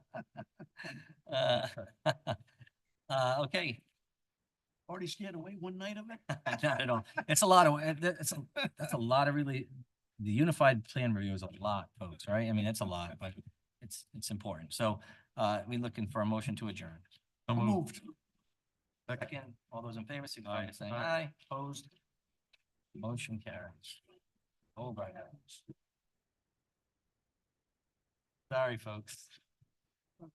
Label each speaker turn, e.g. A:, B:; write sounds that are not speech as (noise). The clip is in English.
A: Uh, (laughs) uh, okay. (laughs) Already scared away one night of it? (laughs) Not at all. It's a lot of, it- it's, a- that's a lot of really, the unified plan review is a lot, folks, right? I mean, it's a lot, but it's, it's important. So, uh, we looking for a motion to adjourn.
B: So moved.
A: Second, all those in favor, signify by
B: Aye.
A: saying
B: Aye.
A: aye, opposed. Motion carries. All right. Sorry, folks.